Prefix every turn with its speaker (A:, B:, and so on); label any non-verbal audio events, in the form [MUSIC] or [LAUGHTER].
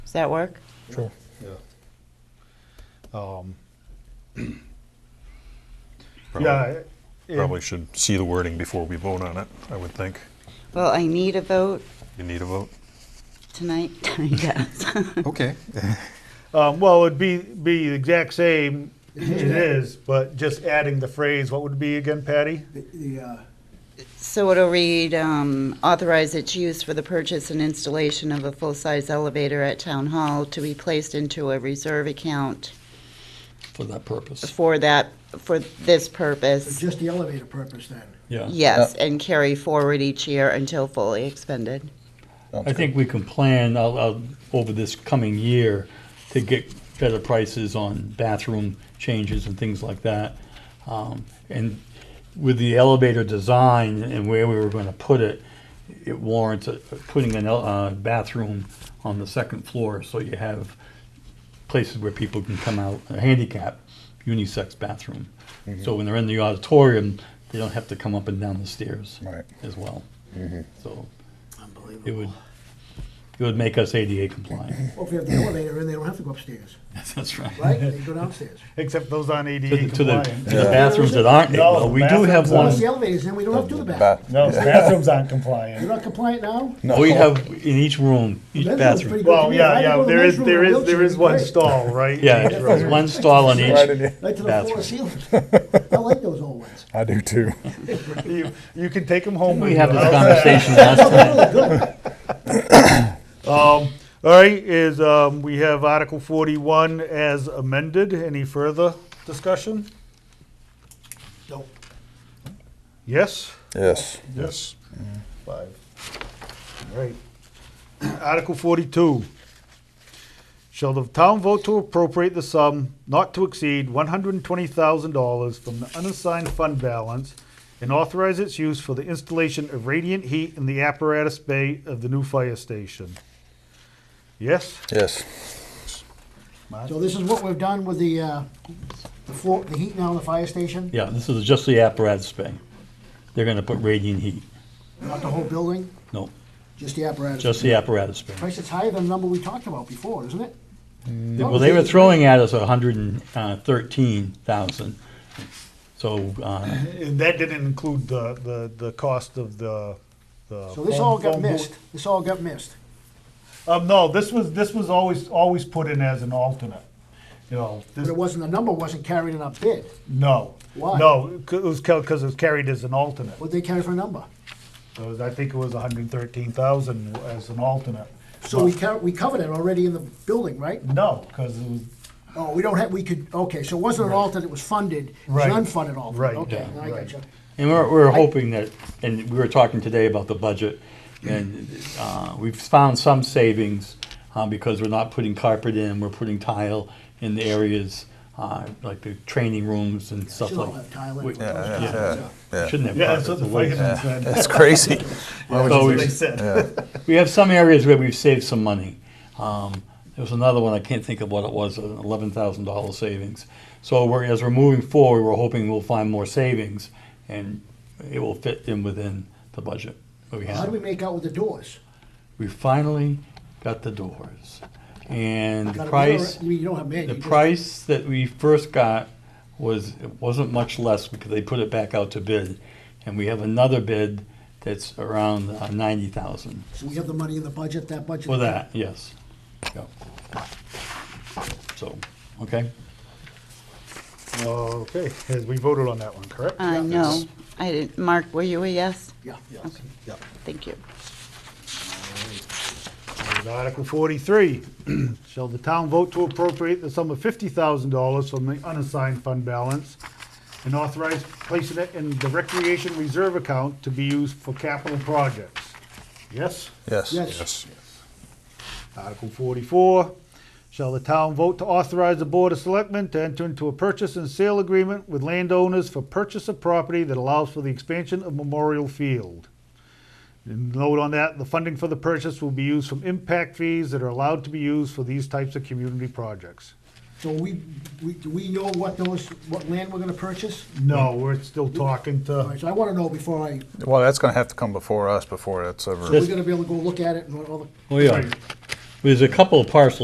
A: Does that work?
B: Sure.
C: Yeah.
B: Um,
D: Probably-
B: yeah. it-
D: Probably should see the wording before we vote on it, I would think.
A: Well, I need a vote
D: You need a vote?
A: tonight, [LAUGHS] yes.
D: Okay.
B: Um, well, it'd be, be the exact same, it is, but just adding the phrase, what would it be again, Patty?
E: The- The, uh,
A: So it'll read, um, authorize its use for the purchase and installation of a full-size elevator at Town Hall to be placed into a reserve account
F: for that purpose.
A: for that, for this purpose.
E: just the elevator purpose then.
F: Yeah.
A: Yes, and carry forward each year until fully expended.
F: I think we can plan out, out over this coming year to get better prices on bathroom changes and things like that. Um, and with the elevator design and where we were going to put it, it warrants uh, putting an el- uh, bathroom on the second floor so you have places where people can come out, a handicap unisex bathroom. So when they're in the auditorium, they don't have to come up and down the stairs
C: Right.
F: as well. So it
E: Unbelievable.
F: would, it would make us ADA
E: [LAUGHS]
F: compliant.
E: Well, if you have the elevator in, they don't have to
F: [LAUGHS]
E: go upstairs,
F: That's
E: right? They go downstairs.
B: Except those on
F: To
B: ADA
F: the, to the-
B: E compliant.
F: to [LAUGHS] the bathrooms that aren't,
B: No,
F: well, we do have
B: bathrooms
F: one,
E: Once the elevator's in, we don't have to do the bathroom.
C: Bath-
B: No, bathrooms aren't
E: You're
B: compliant.
E: not compliant now?
F: we have in each room, each
E: Bedroom's
F: bathroom.
E: pretty good to
B: Well,
E: me.
B: yeah,
E: If I
B: yeah,
E: go to the
B: there is,
E: men's room
B: there
E: in a
B: is,
E: wheelchair,
B: there is
E: it'd be
B: one
E: great.
B: stall, right?
F: Yeah, there's one stall on
C: Right in
F: each,
C: here.
E: Right to the floor
F: bathroom.
E: ceiling.
F: [LAUGHS]
E: I like those old ones.
C: I do too.
B: You, you can take them home.
F: we
B: with
F: had
B: you.
F: this
B: How's that?
F: conversation last time. [LAUGHS]
B: Um, all right, is, um, we have Article forty-one as amended. Any further discussion?
E: No.
B: Yes?
C: Yes.
D: Yes.
B: Five. All right. [CLEARS THROAT] Article forty-two. Shall the town vote to appropriate the sum not to exceed one hundred and twenty thousand dollars from the unassigned fund balance and authorize its use for the installation of radiant heat in the apparatus bay of the new fire station? Yes?
C: [LAUGHS] Yes.
E: So this is what we've done with the, uh, the floor, the heat now in the fire station,
F: Yeah, this is just the apparatus bay. They're gonna put radiant heat.
E: not the whole building,
F: No,
E: just the apparatus.
F: just the apparatus bay.
E: Price is higher than the number we talked about before, isn't it?
F: Mm, Well, they were throwing at us hundred and uh, thirteen thousand. So, uh,
B: And that didn't include the, the, the cost of the, the.
E: So this
B: phone-
E: all got
B: phone booth.
E: missed. This all got missed.
B: Um, no, this was, this was always, always put in as an alternate, you know. this-
E: But it wasn't, the number wasn't carried in our bid.
B: No.
E: Why?
B: No, c- it was because it was carried as an alternate.
E: What'd they carry for a number?
B: It was- I think it was 113,000 as an alternate.
E: So we covered, we covered it already in the building, right?
B: No, because it was,
E: Oh, we don't have, we could, okay, so it wasn't an alternate, it was funded, it was
B: Right.
E: an unfunded alternate.
B: Right,
E: Okay,
F: yeah,
E: now I
B: right.
E: got you.
F: And we're, we're hoping that, and we were talking today about the budget, and uh, we've found some savings uh, because we're not putting carpet in, we're putting tile in the areas, uh, like the training rooms and stuff
E: Should all
F: like.
E: have tile in
F: we-
E: it. Yeah,
C: Yeah.
F: we Shouldn't have
B: yeah, that's what
F: carpet.
B: the
F: it's a waste.
B: firemen said.
C: That's crazy.
B: That's what
F: we-
B: they said.
F: We have some areas where we've saved some money. Um, there was another one, I can't think of what it was, an eleven thousand dollar savings. So we're, as we're moving forward, we're hoping we'll find more savings and it will fit in within the budget. that we
E: How
F: have.
E: do we make out with the doors?
F: we finally got the doors. And the
E: Got a-
F: price,
E: We don't have many.
F: the
E: you just-
F: price that we first got was, it wasn't much less because they put it back out to bid. And we have another bid that's around uh, ninety thousand
E: So we have the money in the budget, that budget.
F: for that, yes. Yep. So, okay,
B: Okay, as we voted on that one, correct?
A: Uh, no, I didn't, Mark, were you a yes?
E: Yeah, yeah.
A: Okay. Thank you.
B: And Article 43, [CLEARS THROAT] shall the town vote to appropriate the sum of $50,000 from the unassigned fund balance and authorize placing it in the recreation reserve account to be used for capital projects? Yes?
C: Yes.
E: Yes,
B: Article forty-four, shall the town vote to authorize the Board of Selectmen to enter into a purchase and sale agreement with landowners for purchase of property that allows for the expansion of Memorial Field? And note on that, the funding for the purchase will be used from impact fees that are allowed to be used for these types of community projects.
E: so we, we, do we know what those, what land we're gonna purchase?
B: No, we're still talking
E: All
B: to,
E: right, so I wanna know before I,
C: Well, that's gonna have to come before us, before that's ever.
E: we're gonna be able to go look at it and all the
F: oh yeah. There's a couple of parcels